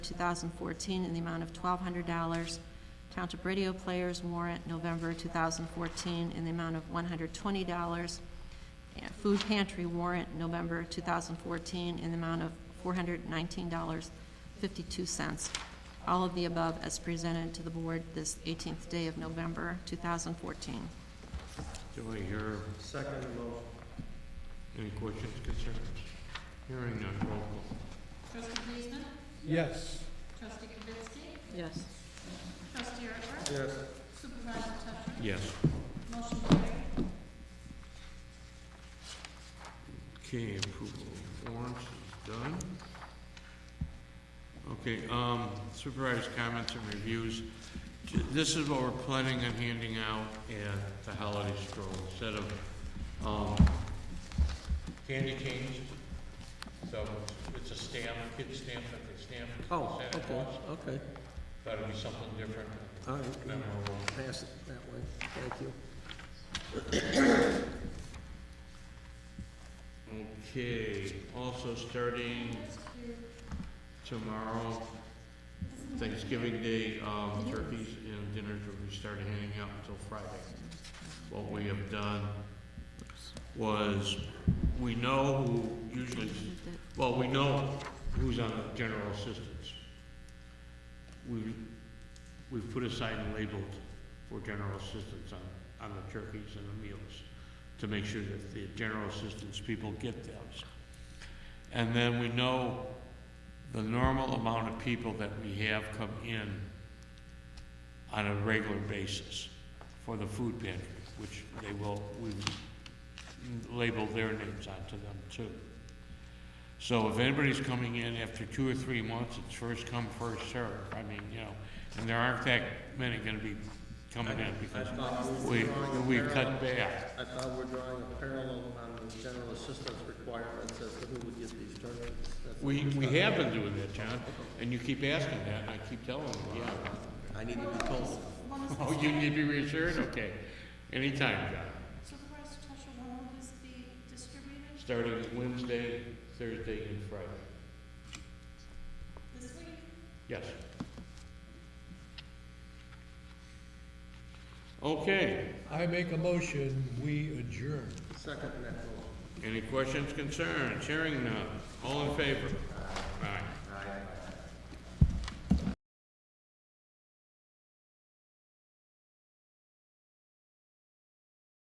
2014, in the amount of $1,200. Township Radio Players warrant, November 2014, in the amount of $120. And Food pantry warrant, November 2014, in the amount of $419.52. All of the above as presented to the board this 18th day of November 2014. Do I hear? Second motion. Any questions, concerns? Hearing none, roll call. Trustee Giesman, Yes. trustee Kavitsky, Yes. trustee Earl, Yes. supervisor Tusher, Yes. motion carried. Okay, approval of warrants is done. Okay, um, supervisors' comments and reviews. J- This is what we're planning on handing out at the holiday stroll, instead of, um, candy canes. So it's a stamp, kid stamp, like a stamp. Oh, Santa okay, Claus. okay. Thought it'd be something different, All right, memorable. pass it that way. Thank you. Okay, also starting tomorrow, Thanksgiving Day, um, turkeys and dinners will be started handing out until Friday. What we have done was, we know who usually, well, we know who's on the general assistance. We've, we've put aside and labeled for general assistance on, on the turkeys and the meals to make sure that the general assistance people get those. And then we know the normal amount of people that we have come in on a regular basis for the food pantry, which they will, we've labeled their names onto them too. So if anybody's coming in after two or three months, it's first come, first served. I mean, you know, and there aren't that many gonna be coming in because we, we cut back. I thought we're drawing a parallel on the general assistance requirements as to who would get these turkeys. That's- We, we have been doing that, John, and you keep asking that, and I keep telling you, yeah. I need to be told. Oh, you need to be reassured? Okay. Anytime, John. Supervisor Tusher, when will this be distributed? Starting Wednesday, Thursday, and Friday. This week? Yes. Okay. I make a motion, we adjourn. Second that motion. Any questions, concerns? Hearing none. All in favor? Aye. Aye.